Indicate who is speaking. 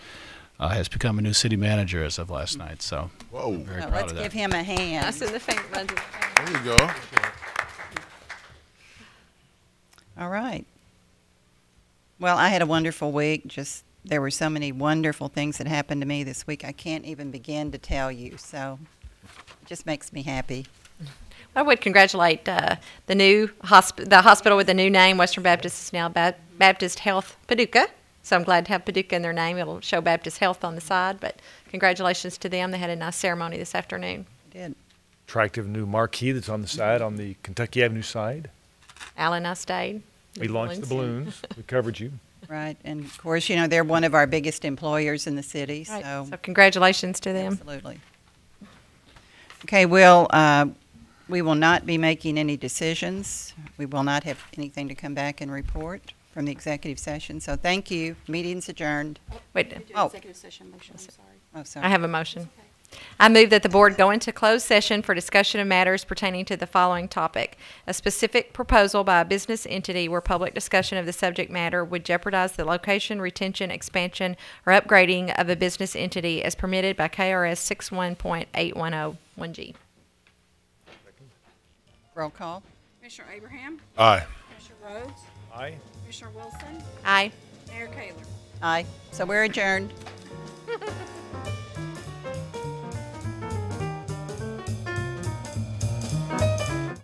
Speaker 1: uh, has become a new city manager as of last night. So
Speaker 2: Whoa.
Speaker 1: I'm very
Speaker 3: Now,
Speaker 1: proud
Speaker 3: Oh, Let's
Speaker 1: of
Speaker 3: give
Speaker 1: that.
Speaker 3: him a hand.
Speaker 4: Us in the faint ones.
Speaker 2: There you go.
Speaker 3: All right. Well, I had a wonderful week. Just there were so many wonderful things that happened to me this week. I can't even begin to tell you. So it just makes me happy.
Speaker 4: I would congratulate uh, the new hosp- the hospital with the new name. Western Baptist is now ba- Baptist Health Paducah. So I'm glad to have Paducah in their name. It'll show Baptist Health on the side. But congratulations to them. They had a nice ceremony this afternoon.
Speaker 3: I did.
Speaker 5: attractive new marquee that's on the side, on the Kentucky Avenue side.
Speaker 4: Al and I stayed.
Speaker 5: We launched the balloons. We covered you.
Speaker 3: Right. And of course, you know, they're one of our biggest employers in the city.
Speaker 4: Right.
Speaker 3: So,
Speaker 4: So congratulations to them.
Speaker 3: absolutely. Okay, well, uh, we will not be making any decisions. We will not have anything to come back and report from the executive session. So thank you. Meeting's adjourned.
Speaker 4: Wait,
Speaker 6: Do
Speaker 3: Oh.
Speaker 6: executive session motion, I'm sorry.
Speaker 3: Oh, sorry.
Speaker 4: I have a motion. I move that the board go into closed session for discussion of matters pertaining to the following topic. A specific proposal by a business entity where public discussion of the subject matter would jeopardize the location, retention, expansion, or upgrading of a business entity as permitted by KRS 61.8101G.
Speaker 3: Roll call.
Speaker 6: Commissioner Abraham,
Speaker 2: Aye.
Speaker 6: Commissioner Rhodes,
Speaker 5: Aye.
Speaker 6: Commissioner Wilson,
Speaker 4: Aye.
Speaker 6: Mayor Kayler.
Speaker 3: Aye. So we're adjourned.